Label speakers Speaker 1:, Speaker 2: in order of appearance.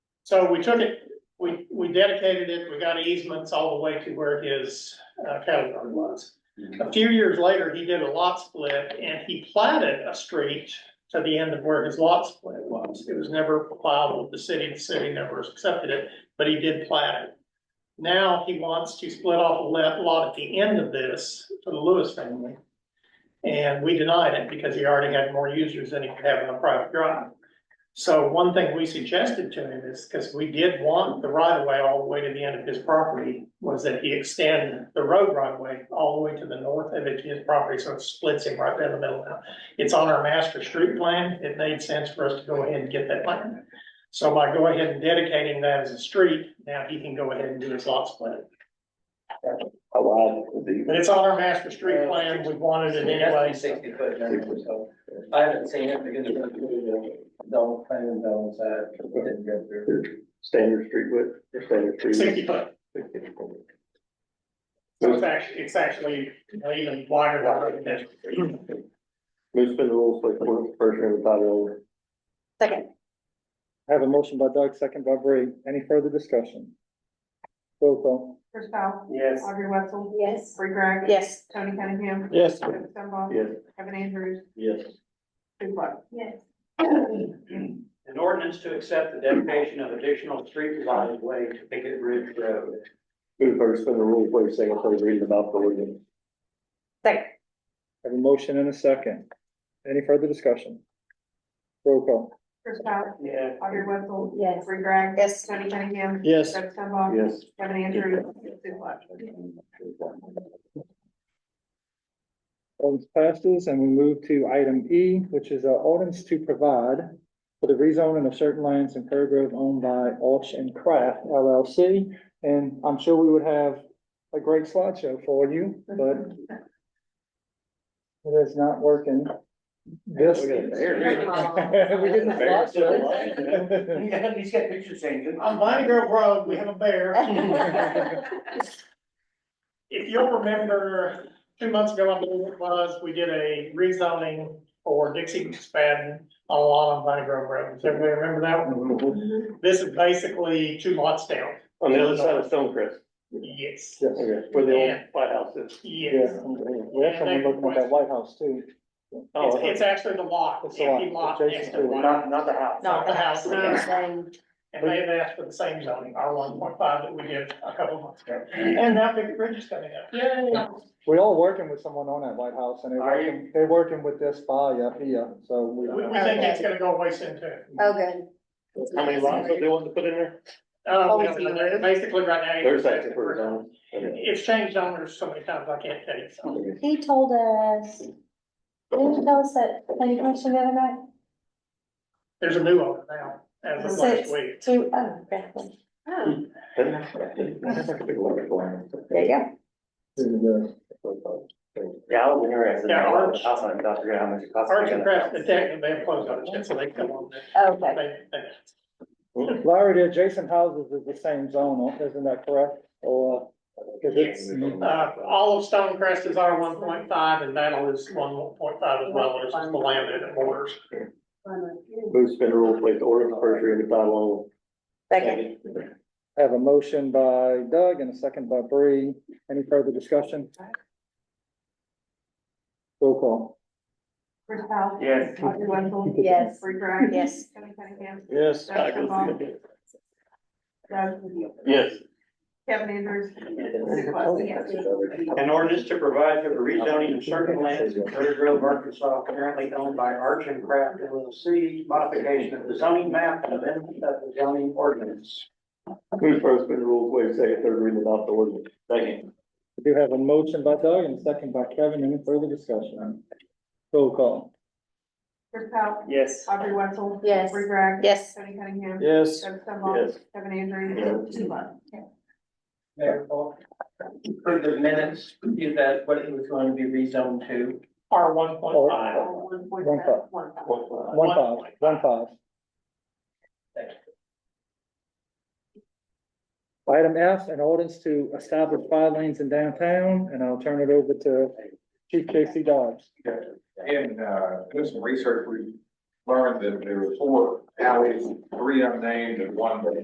Speaker 1: So we took it, we, we dedicated it, we got easements all the way to where his uh, cattle barn was. A few years later, he did a lot split and he platted a street to the end of where his lot split was. It was never plowed with the city, the city never accepted it, but he did plat it. Now he wants to split off a le- lot at the end of this for the Lewis family. And we denied it because he already had more users than he could have on a private drive. So one thing we suggested to him is, because we did want the right of way all the way to the end of his property, was that he extend the road right of way all the way to the north of it to his property, so it splits him right down the middle now. It's on our master street plan. It made sense for us to go ahead and get that land. So by going ahead and dedicating that as a street, now he can go ahead and do his lot split.
Speaker 2: Oh, wow.
Speaker 1: But it's on our master street plan. We wanted it anyway. so-
Speaker 3: Sixty foot variance, so I haven't seen it because it was the double uh, plan and double side, it didn't go through.
Speaker 2: Standard street width, standard tree.
Speaker 1: Sixty foot.
Speaker 2: width.
Speaker 1: So it's actually, it's actually you know, even wider than our residential.
Speaker 2: Move to spin the rules, place one first reading by title only.
Speaker 4: Second,
Speaker 5: I have a motion by Doug, second by Bree. Any further discussion? Roll call.
Speaker 6: Chris Powell.
Speaker 3: Yes.
Speaker 6: Audrey Wetzel,
Speaker 4: yes.
Speaker 6: Free Greg.
Speaker 4: Yes.
Speaker 6: Tony Cunningham.
Speaker 5: Yes.
Speaker 6: Kevin Stumbaugh.
Speaker 2: Yes.
Speaker 6: Kevin Andrews.
Speaker 2: Yes.
Speaker 6: Sue Pluck. Yes.
Speaker 3: An ordinance to accept the dedication of additional street right of way to Pickett Ridge Road.
Speaker 2: Move first spin the rules, place second, third reading about the ordinance.
Speaker 4: Second,
Speaker 5: I have a motion and a second. Any further discussion? Roll call.
Speaker 6: Chris Powell.
Speaker 3: Yeah.
Speaker 6: Audrey Wetzel,
Speaker 4: yes.
Speaker 6: Free Greg.
Speaker 4: Yes.
Speaker 6: Tony Cunningham.
Speaker 5: Yes.
Speaker 6: Kevin Stumbaugh.
Speaker 2: Yes.
Speaker 6: Kevin Andrews. Sue Pluck.
Speaker 5: Ordinance passes and we move to item E, which is an ordinance to provide for the rezoning of certain lands in Kerr Grove owned by Alch and Craft LLC. And I'm sure we would have a great slideshow for you, but it is not working. This.
Speaker 2: We got an
Speaker 5: We
Speaker 2: error.
Speaker 5: get the slideshow.
Speaker 3: He's got pictures saying.
Speaker 1: On Vine Grove Road, we have a bear. If you'll remember, two months ago, I believe it was, we did a rezoning for Dixie McSpadden on a lot on Vine Grove Road. Does everybody remember that one? This is basically two lots down.
Speaker 2: On the other side of Stonecrest,
Speaker 1: Yes,
Speaker 5: Yes.
Speaker 2: okay, where the old White House is.
Speaker 1: yes.
Speaker 5: Yeah, we have someone looking at that White House too.
Speaker 2: Oh,
Speaker 1: It's, it's actually the lot,
Speaker 5: It's the lot,
Speaker 1: empty lot
Speaker 5: adjacent
Speaker 1: next
Speaker 5: to
Speaker 1: to
Speaker 5: the-
Speaker 1: one.
Speaker 3: Not, not the house.
Speaker 1: Not the house.
Speaker 4: Same.
Speaker 1: And they have asked for the same zoning, R one point five that we did a couple months ago. And now Big Bridge is coming up.
Speaker 5: We're all working with someone on that White House and they're
Speaker 3: Are you?
Speaker 5: working, they're working with this file up here, so we.
Speaker 1: We, we think it's gonna go away soon too.
Speaker 4: Oh, good.
Speaker 2: How many lots do they want to put in there?
Speaker 1: Uh, we
Speaker 4: Always
Speaker 1: haven't done
Speaker 4: been
Speaker 1: that. basically right now.
Speaker 2: There's actually for zone.
Speaker 1: It's changed owners so many times, I can't tell you, so.
Speaker 7: He told us, didn't you tell us that planning commission the other night?
Speaker 1: There's a new owner now, as of
Speaker 7: Six.
Speaker 1: last week.
Speaker 7: Two, oh, crap.
Speaker 4: Oh,
Speaker 2: That's like a big lot of land.
Speaker 4: There you go.
Speaker 3: Yeah, I was interested.
Speaker 1: Yeah, Arch-
Speaker 3: House on Dr. Graham, how much it costs.
Speaker 1: Arch and Craft, the tech, they have closed on it, so they come on there.
Speaker 4: Oh, Okay.
Speaker 1: They- they-
Speaker 5: Larry, the adjacent houses is the same zone, isn't that correct? Or, uh, cause it's,
Speaker 1: Uh, all of Stonecrest is R one point five and Battle is one point five as well, which is the land that it borders.
Speaker 2: Move to spin the rules, place ordinance first reading by title only.
Speaker 4: Second,
Speaker 5: I have a motion by Doug and a second by Bree. Any further discussion? Roll call.
Speaker 6: Chris Powell.
Speaker 3: Yes.
Speaker 6: Audrey Wetzel.
Speaker 4: Yes.
Speaker 6: Free Greg.
Speaker 4: yes.
Speaker 6: Tony Cunningham.
Speaker 5: Yes.
Speaker 6: Kevin Stumbaugh. Doug Mogul.
Speaker 2: Yes.
Speaker 6: Kevin Andrews. Sue Pluck. Yes.
Speaker 3: An ordinance to provide for the rezoning of certain lands in Curtis Grove, Arkansas, currently owned by Arch and Craft LLC, modification of the zoning map and amendment of the zoning ordinance.
Speaker 2: Move first spin the rules, waive second, third reading about the ordinance. Second.
Speaker 5: We do have a motion by Doug and a second by Kevin. Any further discussion? Roll call.
Speaker 6: Chris Powell.
Speaker 3: Yes.
Speaker 6: Audrey Wetzel.
Speaker 7: Yes.
Speaker 6: Free Greg.
Speaker 4: Yes.
Speaker 6: Tony Cunningham.
Speaker 5: Yes.
Speaker 6: Kevin
Speaker 2: Yes.
Speaker 6: Stumbaugh. Kevin Andrews.
Speaker 2: Yes.
Speaker 6: Sue Pluck.
Speaker 3: Mayor Paul, for the minutes, is that what it was going to be rezoned to?
Speaker 1: R one point five.
Speaker 6: One point
Speaker 5: One
Speaker 6: five.
Speaker 5: five, one five, one five. Item F, an ordinance to establish five lanes in downtown, and I'll turn it over to Chief Casey Dodge.
Speaker 8: And, uh, doing some research, we learned that there were four alleys, three unnamed and one that